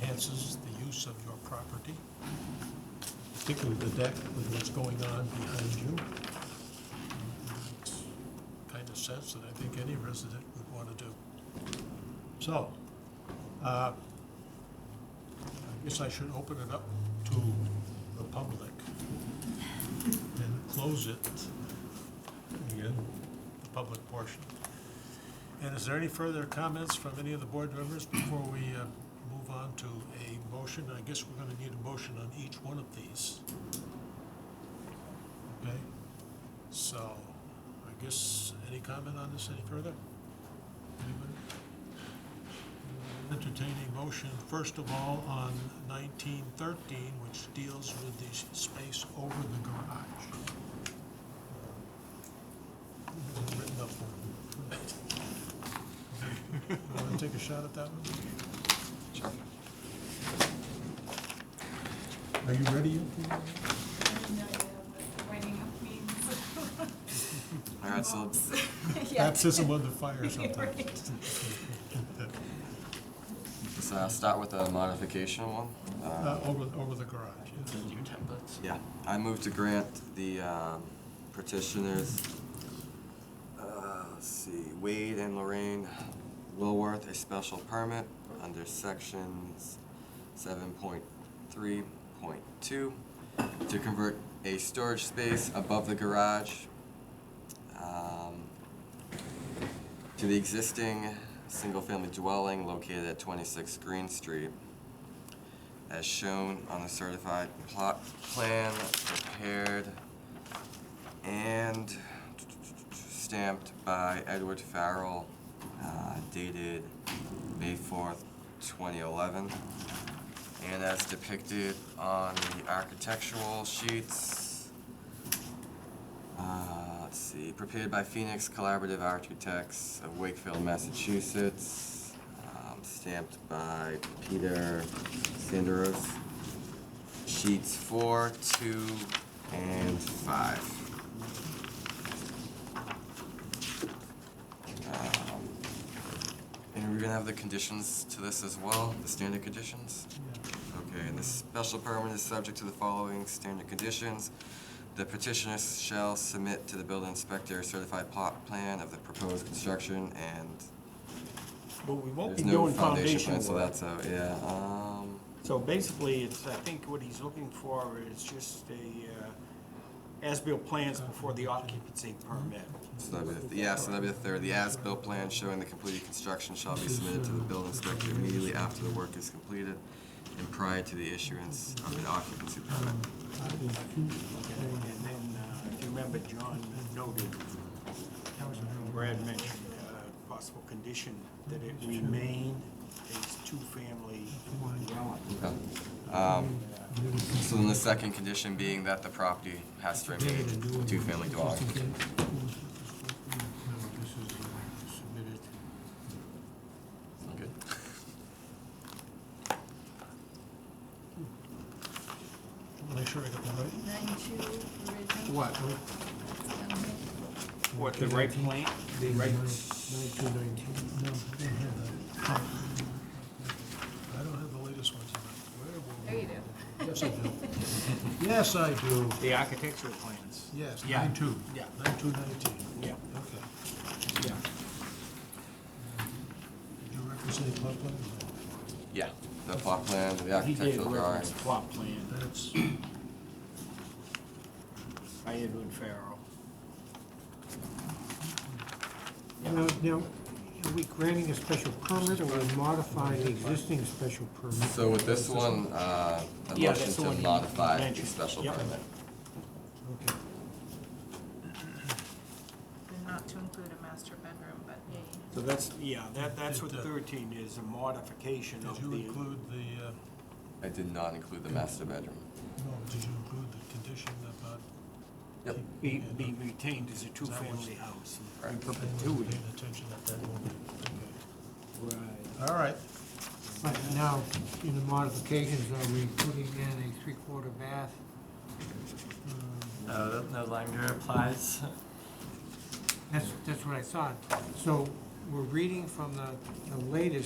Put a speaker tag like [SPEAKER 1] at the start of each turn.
[SPEAKER 1] enhances the use of your property, particularly the deck with what's going on behind you. Kind of sense that I think any resident would want to do. So, uh, I guess I should open it up to the public and close it, again, the public portion. And is there any further comments from any of the board members before we uh, move on to a motion? I guess we're gonna need a motion on each one of these. Okay, so I guess, any comment on this any further? Anybody? Entertaining motion, first of all, on nineteen thirteen, which deals with the space over the garage. Is it Written up for me? Want to take a shot at that one?
[SPEAKER 2] Sure.
[SPEAKER 1] Are you ready? you?
[SPEAKER 3] I have no idea what writing up means.
[SPEAKER 2] All right, so
[SPEAKER 3] Yeah.
[SPEAKER 1] Baptism of the fire sometimes.
[SPEAKER 3] Right.
[SPEAKER 2] let's uh, start with a modification one.
[SPEAKER 1] Uh, Over, over the garage, yes.
[SPEAKER 2] Yeah, I move to grant the um, petitioners, uh, let's see, Wade and Lorraine Lilworth a special permit under sections seven point three point two to convert a storage space above the garage um, to the existing single-family dwelling located at twenty-six Green Street as shown on the certified plot plan prepared and stamped by Edward Farrell, uh, dated May fourth, twenty eleven. And as depicted on the architectural sheets. Uh, let's see, prepared by Phoenix Collaborative Architects of Wakefield, Massachusetts, um, stamped by Peter Sanderos. Sheets four, two, and five. Um, And we're gonna have the conditions to this as well, the standard conditions? Okay, and the special permit is subject to the following standard conditions. The petitioner shall submit to the building inspector a certified plot plan of the proposed construction and
[SPEAKER 4] But we won't be
[SPEAKER 2] there's no
[SPEAKER 4] doing
[SPEAKER 2] foundation
[SPEAKER 4] foundation
[SPEAKER 2] plan, so
[SPEAKER 4] work.
[SPEAKER 2] that's out, yeah, um,
[SPEAKER 4] So basically, it's, I think what he's looking for is just a, uh, as-built plans before the occupancy permit.
[SPEAKER 2] so that'd be, the- yeah, so that'd be the third. The as-built plan showing the completed construction shall be submitted to the building inspector immediately after the work is completed and prior to the issuance of an occupancy permit.
[SPEAKER 4] Okay, And then, uh, if you remember, John noted, Brad mentioned uh possible condition that it remain a two-family dwelling.
[SPEAKER 2] Okay. Um, so then the second condition being that the property has to remain a two-family dwelling.
[SPEAKER 1] uh,
[SPEAKER 2] Sound good?
[SPEAKER 1] Make sure I got that right.
[SPEAKER 3] Ninety-two original.
[SPEAKER 4] What?
[SPEAKER 3] Um,
[SPEAKER 4] What, the right plan? The right.
[SPEAKER 1] No, I didn't have that. I don't have the latest ones. Where were
[SPEAKER 3] There
[SPEAKER 1] we?
[SPEAKER 3] you go.
[SPEAKER 1] Yes, I do. Yes, I do.
[SPEAKER 4] The architectural plans.
[SPEAKER 1] Yes,
[SPEAKER 4] Yeah.
[SPEAKER 1] nine two.
[SPEAKER 4] Yeah.
[SPEAKER 1] Nine two nineteen.
[SPEAKER 4] Yeah,
[SPEAKER 1] Okay.
[SPEAKER 4] yeah.
[SPEAKER 1] Did you represent plot plan?
[SPEAKER 2] Yeah, the plot plan, the
[SPEAKER 4] He did
[SPEAKER 2] architectural drawing.
[SPEAKER 4] reference plot plan
[SPEAKER 1] That's,
[SPEAKER 4] by Edwin Farrell.
[SPEAKER 5] Now, now, are we granting a special permit or we modifying the existing special permit?
[SPEAKER 2] So with this one, uh, a
[SPEAKER 4] Yeah,
[SPEAKER 2] motion
[SPEAKER 4] that's the
[SPEAKER 2] to
[SPEAKER 4] one you
[SPEAKER 2] modify the
[SPEAKER 4] mentioned.
[SPEAKER 2] special
[SPEAKER 4] Yep.
[SPEAKER 2] permit.
[SPEAKER 5] Okay.
[SPEAKER 3] And Not to include a master bedroom, but yeah.
[SPEAKER 4] So that's, yeah, that, that's what
[SPEAKER 1] Did, uh,
[SPEAKER 4] thirteen is, a modification
[SPEAKER 1] did
[SPEAKER 4] of
[SPEAKER 1] you
[SPEAKER 4] the.
[SPEAKER 1] include the, uh,
[SPEAKER 2] I did not include the master bedroom.
[SPEAKER 1] no, did you include the condition about?
[SPEAKER 2] Yep.
[SPEAKER 4] Be, be retained as a
[SPEAKER 1] That was-
[SPEAKER 4] two-family house.
[SPEAKER 2] Right.
[SPEAKER 1] I wasn't paying attention at that moment.
[SPEAKER 4] Right.
[SPEAKER 1] Okay. All right.
[SPEAKER 5] But now, in the modifications, are we putting in a three-quarter bath? Um,
[SPEAKER 6] No, that Uh, no longer applies.
[SPEAKER 5] That's, that's what I thought. So we're reading from the, the latest